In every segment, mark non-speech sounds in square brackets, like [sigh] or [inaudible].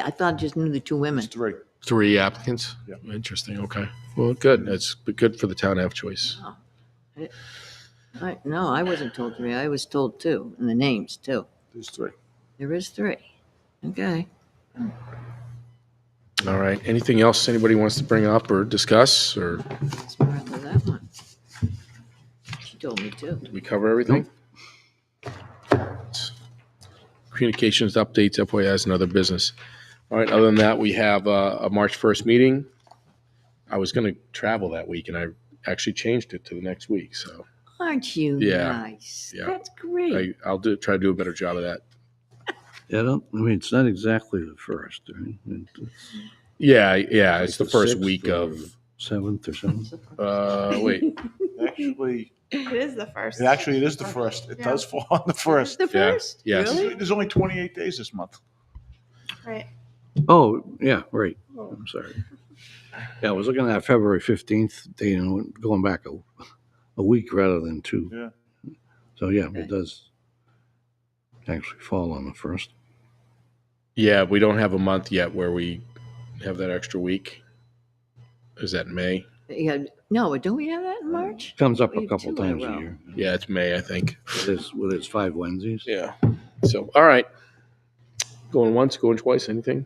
I thought I just knew the two women. It's three. Three applicants? Yeah. Interesting, okay. Well, good, that's good for the town to have choice. I- No, I wasn't told three. I was told two, and the names too. There's three. There is three. Okay. All right, anything else anybody wants to bring up or discuss, or Let's start with that one. She told me too. we cover everything? Communications updates, FYIs, and other business. All right, other than that, we have uh, a March 1st meeting. I was going to travel that week, and I actually changed it to the next week, so Aren't you Yeah. nice? Yeah. That's great. I- I'll do, try to do a better job of that. Yeah, I don't, I mean, it's not exactly the first, I mean, it's Yeah, yeah, Uh, it's the like first sixth week or of, Seventh or something. uh, wait, Actually, It is the first. it actually it is the first. It does fall on the first. The yeah, first? yes. Really? There's only 28 days this month. Right. Oh, yeah, right, I'm sorry. Yeah, I was looking at February fifteenth, you know, going back a, a week rather than two. Yeah. So, yeah, Okay. it does actually fall on the first. Yeah, we don't have a month yet where we have that extra week. Is that May? Yeah. No, don't we have that in March? Comes up a Wait, couple two in a times a row. year. Yeah, it's May, I think. With its, with its five Wednesdays. Yeah. So, all right. Going once, going twice, anything?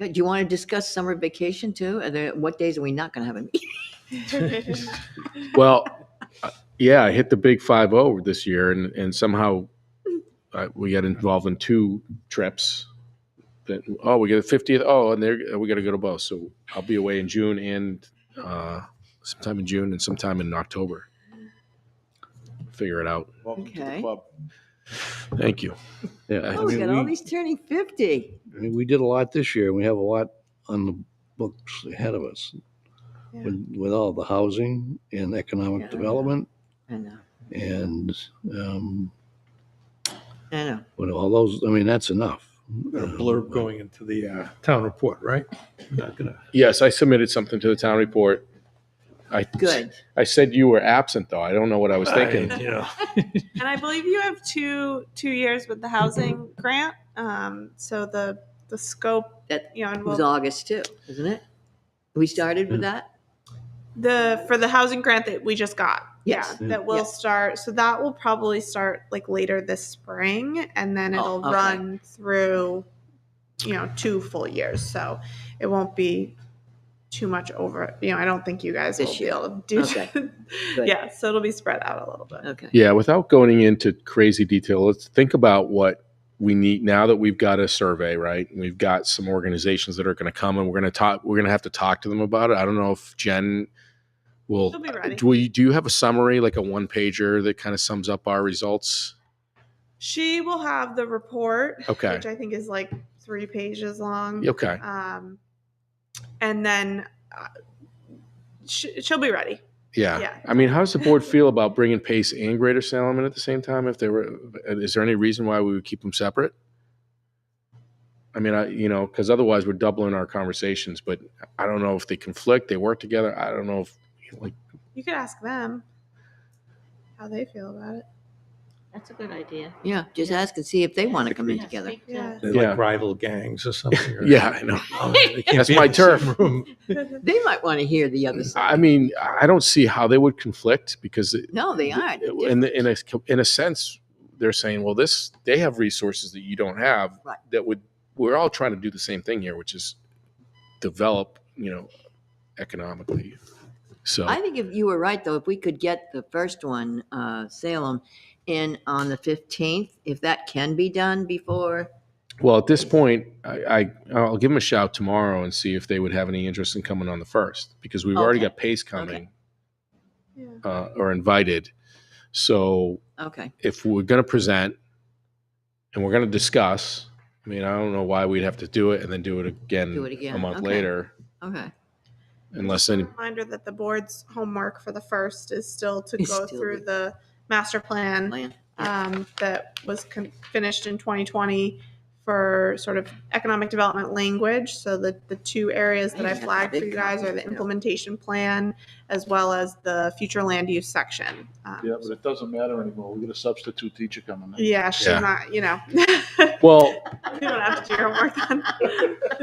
Do you want to discuss summer vacation too? Are there, what days are we not going to have a meeting? Well, uh, yeah, I hit the big 5 0 this year, and, and somehow uh, we got involved in two trips. That, oh, we got a 50th. Oh, and there we got to go to both. So I'll be away in June and uh, sometime in June and sometime in October. Figure it out. Welcome to the Okay. club. Thank you. Yeah. I Oh, we mean, got all we- these turning 50. I mean, we did a lot this year. and We have a lot on the books ahead of us with, with all the housing and Yeah. economic development I know, and, um, I know. with all those, I mean, that's enough. Got a blurb going into the uh, town report, right? Not gonna- Yes, I submitted something to the town report. I Good. I said you were absent though. I don't know what I was thinking. I, you know, And I believe you have two two years with the housing grant. Um, so the the scope That you know and It was we'll, August too, isn't it? We started with that? the for the housing grant that we just got. Yes. Yeah, that will Yeah. start. So that will probably start like later this spring, and then Oh, it'll okay. run through, you know, two full years. So it won't be too much over. You know, I don't think you guys This will year. be able to do. [laughs] Okay. Good. yeah, so it'll be spread out a little bit. Okay. Yeah, without going into crazy detail, let's think about what we need now that we've got a survey, right? We've got some organizations that are going to come and we're going to talk we're going to have to talk to them about it. I don't know if Jen will She'll be ready. do we do you have a summary like a one pager that kind of sums up our results? She will have the report, Okay. which I think is like three pages long. Okay. Um, and then uh, sh- she'll be ready. Yeah. Yeah. I mean, how does the board feel about bringing Pace and Greater Salem in at the same time? If they were, is there any reason why we would keep them separate? I mean, I, you know, because otherwise we're doubling our conversations, but I don't know if they conflict, they work together. I don't know if, like, You could ask them how they feel about it. That's a good idea. Yeah, just ask and see if they want to come in Yeah, together. speak [laughs] to- Yeah. they're Yeah. like rival gangs or something. or- [laughs] yeah, I know. Oh, they can't That's be in my the same turf. room. [laughs] They might want to hear the other side. I mean, I don't see how they would conflict because No, they aren't. They're in the, in a in a sense, they're saying, well, this they have resources that you don't have Right. that would. We're all trying to do the same thing here, which is develop, you know, economically. So I think if you were right, though, if we could get the first one, uh, Salem, in on the 15th, if that can be done before, Well, at this point, I, I I'll give them a shout tomorrow and see if they would have any interest in coming on the first because we've already Okay. got Pace coming Yeah. uh, or invited. So okay. if we're going to present and we're going to discuss, I mean, I don't know why we'd have to do it and then do it again, Do it again. a month Okay. later, Okay. unless any. Reminder that the board's homework for the first is still to Is go still through the- the master plan. Plan. um, that was con- finished in 2020 for sort of economic development language. So the, the two areas that I flagged for you guys are the implementation plan as well as the future land use section. Um, Yeah, but it doesn't matter anymore. We got a substitute teacher coming in. Yeah, she's Yeah. not, [laughs] you know, Well, you don't have to do your homework then.